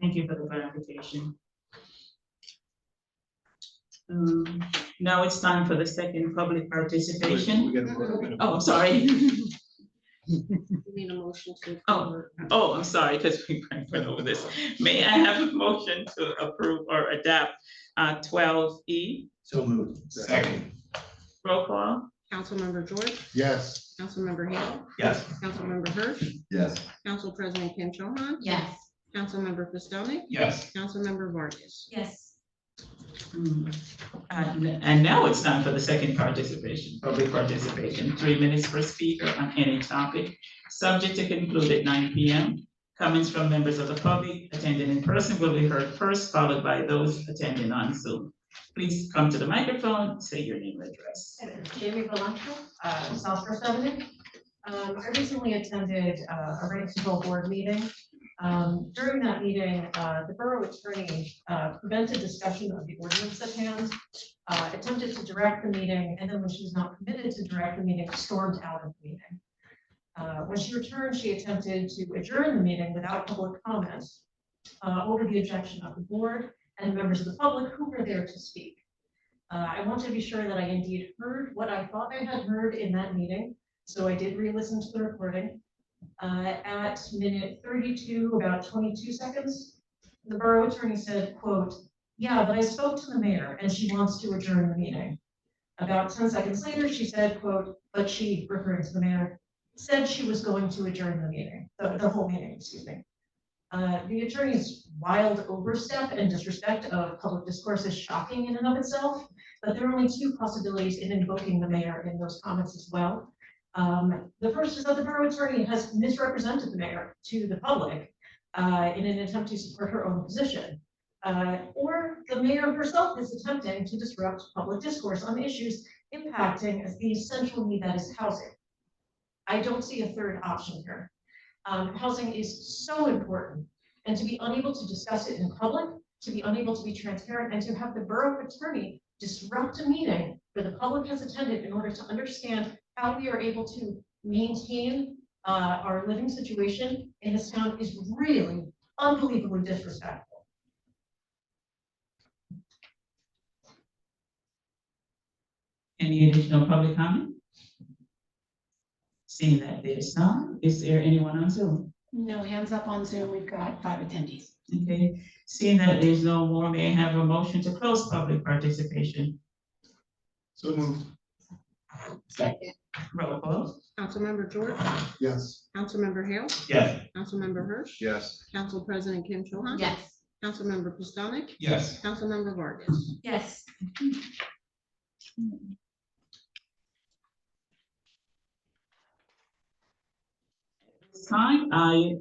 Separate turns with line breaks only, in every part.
Thank you for the clarification. Um, now it's time for the second public participation.
We're gonna- we're gonna-
Oh, I'm sorry.
You mean a motion to?
Oh. Oh, I'm sorry, because we went over this. May I have a motion to approve or adapt uh, twelve E?
So moved.
Second.
Roll call?
Councilmember George,
Yes.
Councilmember Hale,
Yes.
Councilmember Hirsch,
Yes.
Council President Kim Cho Han,
Yes.
Councilmember Pistonik,
Yes.
Councilmember Vargas.
Yes.
Hmm. And and now it's time for the second participation, public participation, three minutes per speaker on any topic, subject to conclude at nine P M. Comments from members of the public attending in person will be heard first, followed by those attending on Zoom. Please come to the microphone, say your name and address.
Jamie Valentro, uh, Southwest Avenue. Um, I recently attended uh, a rent control board meeting. Um, during that meeting, uh, the borough attorney, uh, prevented discussion of the ordinance at hand. Uh, attempted to direct the meeting, and then when she was not permitted to direct the meeting, stormed out of the meeting. Uh, when she returned, she attempted to adjourn the meeting without public comment, uh, over the objection of the board and members of the public who were there to speak. Uh, I want to be sure that I indeed heard what I thought I had heard in that meeting, so I did re-listen to the recording. Uh, at minute thirty-two, about twenty-two seconds, the borough attorney said, quote, "Yeah, but I spoke to the mayor and she wants to adjourn the meeting." About ten seconds later, she said, quote, "But she," referring to the mayor, "said she was going to adjourn the meeting, the, the whole meeting, excuse me." Uh, the attorney's wild overstep and disrespect of public discourse is shocking in and of itself. But there are only two possibilities in invoking the mayor in those comments as well. Um, the first is that the borough attorney has misrepresented the mayor to the public uh, in an attempt to support her own position. Uh, or the mayor herself is attempting to disrupt public discourse on issues impacting the essential need that is housing. I don't see a third option here. Um, housing is so important, and to be unable to discuss it in public, to be unable to be transparent, and to have the borough attorney disrupt a meeting where the public has attended in order to understand how we are able to maintain uh, our living situation in this town is really unbelievably disrespectful.
Any additional public comment? Seeing that there's none, is there anyone on Zoom?
No hands up on Zoom. We've got five attendees.
Okay, seeing that there's no more, may I have a motion to close public participation?
So moved.
Second.
Roll call.
Councilmember George,
Yes.
Councilmember Hale,
Yes.
Councilmember Hirsch,
Yes.
Council President Kim Cho Han,
Yes.
Councilmember Pistonik,
Yes.
Councilmember Vargas.
Yes.
This time, I,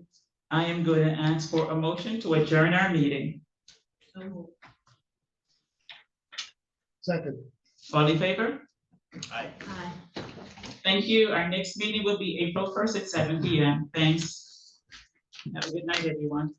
I am going to ask for a motion to adjourn our meeting.
Second.
All in favor?
Aye.
Aye.
Thank you. Our next meeting will be April first at seven P M. Thanks. Have a good night, everyone.